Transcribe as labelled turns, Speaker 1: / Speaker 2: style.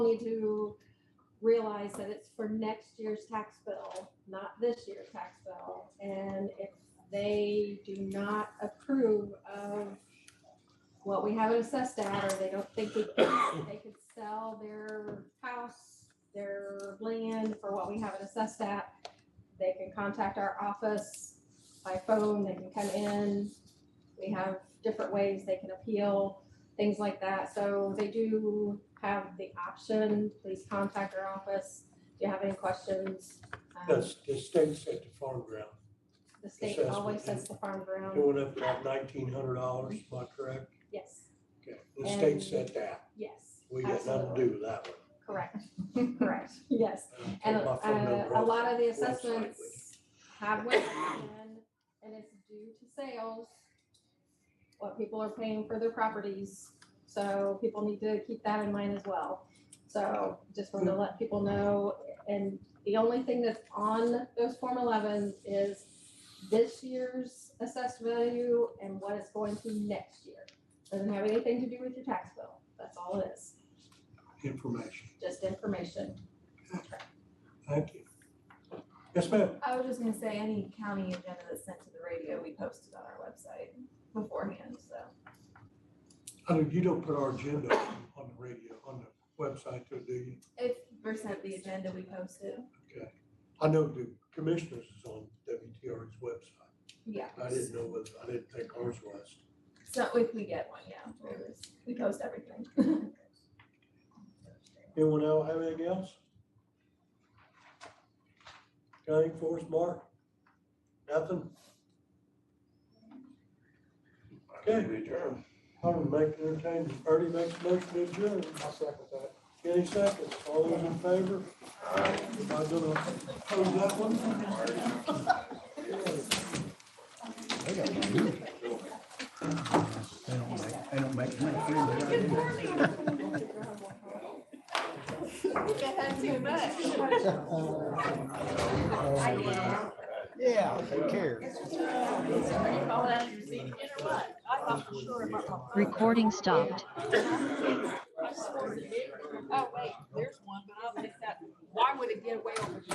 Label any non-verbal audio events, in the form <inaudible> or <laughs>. Speaker 1: need to realize that it's for next year's tax bill, not this year's tax bill. And if they do not approve of what we have it assessed at, or they don't think we, they could sell their house, their land for what we have it assessed at, they can contact our office by phone, they can come in. We have different ways they can appeal, things like that. So they do have the option, please contact our office if you have any questions. Um,
Speaker 2: That's, the state set the farm ground,
Speaker 1: The state
Speaker 2: assessment.
Speaker 1: always says the farm ground,
Speaker 2: going up about nineteen hundred dollars, am I correct?
Speaker 1: yes,
Speaker 2: Okay, the state
Speaker 1: And-
Speaker 2: set that,
Speaker 1: yes,
Speaker 2: we got nothing to do with that one.
Speaker 1: correct, correct, yes.
Speaker 2: I don't take
Speaker 1: And
Speaker 2: my phone
Speaker 1: uh,
Speaker 2: number
Speaker 1: a
Speaker 2: off
Speaker 1: lot of the
Speaker 2: that website with
Speaker 1: assessments have went in and it's due to sales. What people are paying for their properties, so people need to keep that in mind as well. So just wanted to let people know, and the only thing that's on those Form elevens is this year's assessed value and what it's going to next year. Doesn't have anything to do with your tax bill, that's all it is,
Speaker 2: Information,
Speaker 1: just information.
Speaker 2: thank you. Yes, ma'am,
Speaker 3: I was just gonna say, any county agenda that's sent to the radio, we posted on our website beforehand, so.
Speaker 2: I know you don't put our agenda on the radio, on the website, though, do you?
Speaker 3: If we're sent the agenda, we post it.
Speaker 2: Okay, I know the commissioners is on WTR's website,
Speaker 3: Yeah.
Speaker 2: I didn't know, whether- I didn't think ours was.
Speaker 3: So if we get one, yeah, we'll just- we post everything. <laughs>
Speaker 2: Anyone else have anything else? Got anything for us, Mark? Nothing? Okay.
Speaker 4: Adjourn.
Speaker 2: I would make entertain, Ernie makes a motion to adjourn.
Speaker 4: I'll second that.
Speaker 2: Any seconds, all those in favor? Am I gonna close that one?
Speaker 5: They got my money. They don't make, they don't make money. for it, but
Speaker 3: I
Speaker 5: I do.
Speaker 3: had too much.
Speaker 5: Yeah, who cares?
Speaker 6: Recording stopped.
Speaker 7: Oh, wait, there's